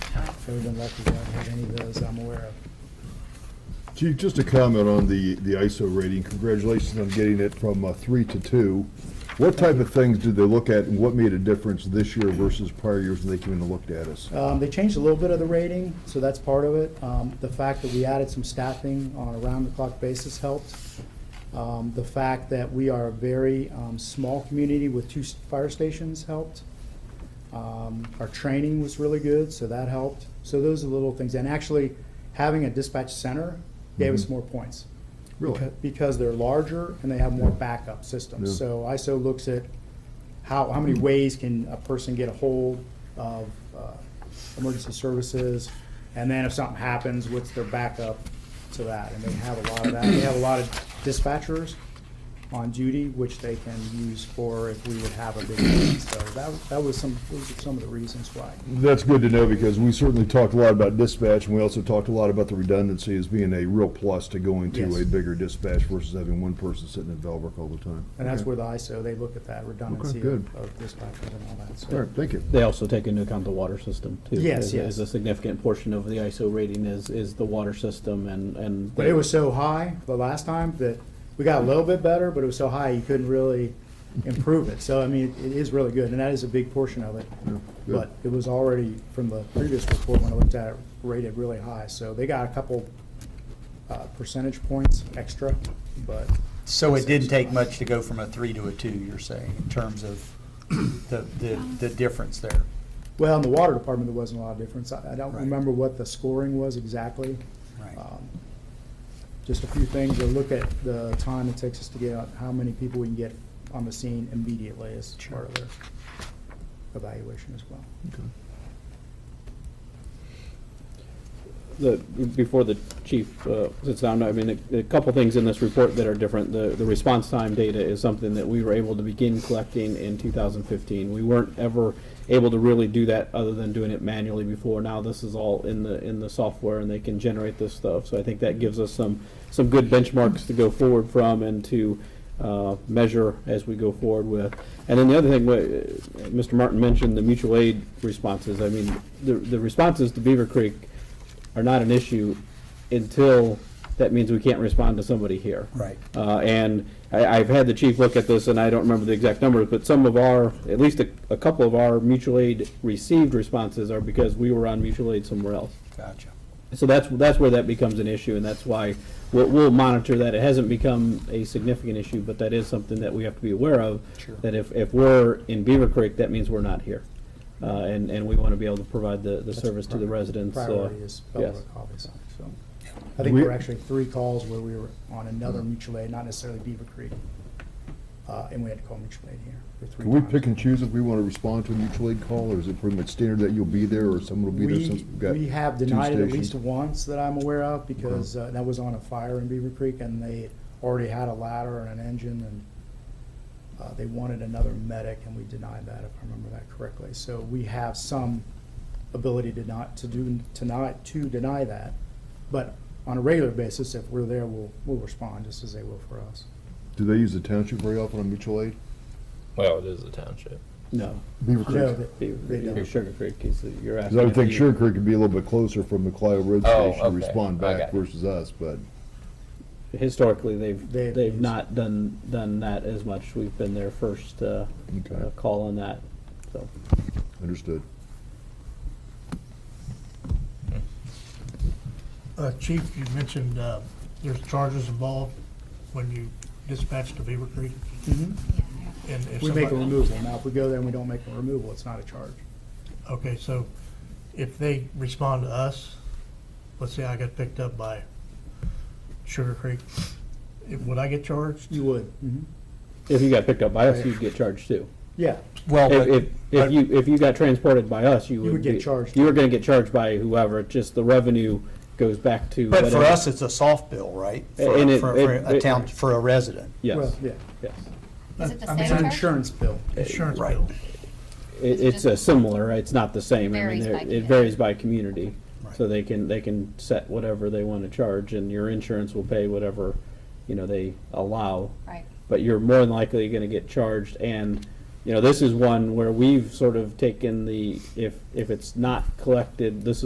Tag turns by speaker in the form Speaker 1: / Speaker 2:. Speaker 1: Ever been lucky, I haven't had any of those I'm aware of.
Speaker 2: Chief, just a comment on the, the ISO rating. Congratulations on getting it from uh, three to two. What type of things did they look at and what made a difference this year versus prior years when they came in and looked at us?
Speaker 1: Um, They changed a little bit of the rating, so that's part of it. Um, The fact that we added some staffing on a round-the-clock basis helped. Um, The fact that we are a very um, small community with two s- fire stations helped. Um, Our training was really good, so that helped. So those are little things. And actually, having a dispatch center gave us more points.
Speaker 2: Really?
Speaker 1: Beca- Because they're larger and they have more backup systems.
Speaker 2: Yeah.
Speaker 1: So ISO looks at how, how many ways can a person get a hold of uh, emergency services? And then if something happens, what's their backup to that? And they have a lot of that. They have a lot of dispatchers on duty, which they can use for if we would have a big need. So that, that was some, those are some of the reasons why.
Speaker 2: That's good to know because we certainly talked a lot about dispatch and we also talked a lot about the redundancy as being a real plus to going to
Speaker 1: Yes.
Speaker 2: a bigger dispatch versus having one person sitting in Velbrook all the time.
Speaker 1: And that's
Speaker 2: Okay.
Speaker 1: where the ISO, they look at that redundancy
Speaker 2: good.
Speaker 1: of of dispatchers and all that.
Speaker 2: All
Speaker 1: So
Speaker 2: right, thank you.
Speaker 3: They also take into account the water system too.
Speaker 1: Yes,
Speaker 3: Is-
Speaker 1: yes.
Speaker 3: Is a significant portion of the ISO rating is, is the water system and, and.
Speaker 1: But it was so high the last time that we got a little bit better, but it was so high you couldn't really improve it. So, I mean, it is really good, and that is a big portion of it.
Speaker 2: good.
Speaker 1: But it was already, from the previous report when I looked at it, rated really high. So they got a couple uh, percentage points extra, but
Speaker 4: So it didn't take much to go from a three to a two, you're saying, in terms of the, the, the difference there?
Speaker 1: Well, in the water department, there wasn't a lot of difference. I I don't
Speaker 4: Right.
Speaker 1: remember what the scoring was exactly.
Speaker 4: Right.
Speaker 1: Um, Just a few things, to look at the time it takes us to get out, how many people we can get on the scene immediately is part of their evaluation as well.
Speaker 3: The, before the chief uh, sits down, I mean, a a couple things in this report that are different. The, the response time data is something that we were able to begin collecting in 2015. We weren't ever able to really do that other than doing it manually before. Now this is all in the, in the software and they can generate this stuff. So I think that gives us some, some good benchmarks to go forward from and to uh, measure as we go forward with. And then the other thing, uh, Mr. Martin mentioned the mutual aid responses. I mean, the, the responses to Beaver Creek are not an issue until that means we can't respond to somebody here.
Speaker 4: Right.
Speaker 3: Uh, and I, I've had the chief look at this, and I don't remember the exact numbers, but some of our, at least a, a couple of our mutual aid received responses are because we were on mutual aid somewhere else.
Speaker 4: Gotcha.
Speaker 3: So that's, that's where that becomes an issue, and that's why we'll, we'll monitor that. It hasn't become a significant issue, but that is something that we have to be aware of.
Speaker 4: Sure.
Speaker 3: That if, if we're in Beaver Creek, that means we're not here. Uh, and, and we want to be able to provide the, the service to the residents. uh,
Speaker 1: Priority is
Speaker 3: yes.
Speaker 1: Belleville, obviously, so. I think
Speaker 2: We-
Speaker 1: there were actually three calls where we were on
Speaker 4: Mm-hmm.
Speaker 1: another mutual aid, not necessarily Beaver Creek. uh, And we had to call mutual aid here for three
Speaker 2: Can we
Speaker 1: times.
Speaker 2: pick and choose if we want to respond to a mutual aid call or is it pretty much standard that you'll be there or someone will be there since
Speaker 1: We,
Speaker 2: we've got
Speaker 1: we have
Speaker 2: two
Speaker 1: denied it at
Speaker 2: stations? Uh-huh.
Speaker 1: least once that I'm aware of, because uh, that was on a fire in Beaver Creek, and they already had a ladder and an engine, and uh, they wanted another medic, and we denied that, if I remember that correctly. So we have some ability to not, to do, to not, to deny that. But on a regular basis, if we're there, we'll, we'll respond, just as they will for us.
Speaker 2: Do they use the township very often on mutual aid?
Speaker 5: Well, it is a township.
Speaker 3: No.
Speaker 2: Beaver
Speaker 1: No,
Speaker 2: Creek?
Speaker 1: they-
Speaker 3: Beaver,
Speaker 1: they don't.
Speaker 3: Sugar Creek is, you're
Speaker 2: Because
Speaker 3: asking.
Speaker 2: I would think
Speaker 3: if
Speaker 2: Sugar
Speaker 3: you-
Speaker 2: Creek would be a little bit closer from the Clio Road
Speaker 5: Oh,
Speaker 2: Station to
Speaker 5: okay.
Speaker 2: respond back
Speaker 5: Okay.
Speaker 2: versus us, but
Speaker 3: Historically, they've,
Speaker 1: They've
Speaker 3: they've
Speaker 1: used-
Speaker 3: not done, done that as much. We've been their first, uh,
Speaker 2: Okay.
Speaker 3: uh, call on that, so.
Speaker 2: understood.
Speaker 6: Uh, Chief, you mentioned uh, there's charges involved when you dispatch to Beaver Creek? And if
Speaker 1: We make a
Speaker 6: somebody-
Speaker 1: removal. Now, if we go there and we don't make a removal, it's not a charge.
Speaker 6: Okay, so if they respond to us, let's say I got picked up by Sugar Creek, if- would I get charged?
Speaker 1: You would. Mhm.
Speaker 3: If you got picked up by us, you'd get charged too.
Speaker 1: Yeah,
Speaker 4: Well,
Speaker 1: Oh,
Speaker 3: If,
Speaker 4: but-
Speaker 3: if, if
Speaker 4: but-
Speaker 3: you, if you got transported by us, you would.
Speaker 1: would get
Speaker 3: be-
Speaker 1: charged.
Speaker 3: You were gonna get charged by whoever, just the revenue goes back to.
Speaker 4: but for
Speaker 3: whatever-
Speaker 4: us, it's a soft bill, right? For-
Speaker 3: And it-
Speaker 4: For for
Speaker 3: it-
Speaker 4: a town, for a resident.
Speaker 1: well,
Speaker 3: Yes,
Speaker 1: yeah.
Speaker 3: yes.
Speaker 7: Is it the
Speaker 6: I
Speaker 1: It's
Speaker 6: mean,
Speaker 7: same
Speaker 1: an
Speaker 7: charge?
Speaker 1: insurance bill.
Speaker 6: Insurance
Speaker 4: Right.
Speaker 6: bill.
Speaker 3: It, it's a similar, it's not the same. I mean,
Speaker 7: Varies
Speaker 3: there-
Speaker 7: by
Speaker 3: It
Speaker 7: community.
Speaker 3: varies by community. So
Speaker 4: Right.
Speaker 3: they can, they can set whatever they wanna charge and your insurance will pay whatever, you know, they allow.
Speaker 7: Right.
Speaker 3: but you're more than likely going to get charged. And, you know, this is one where we've sort of taken the, if, if it's not collected, this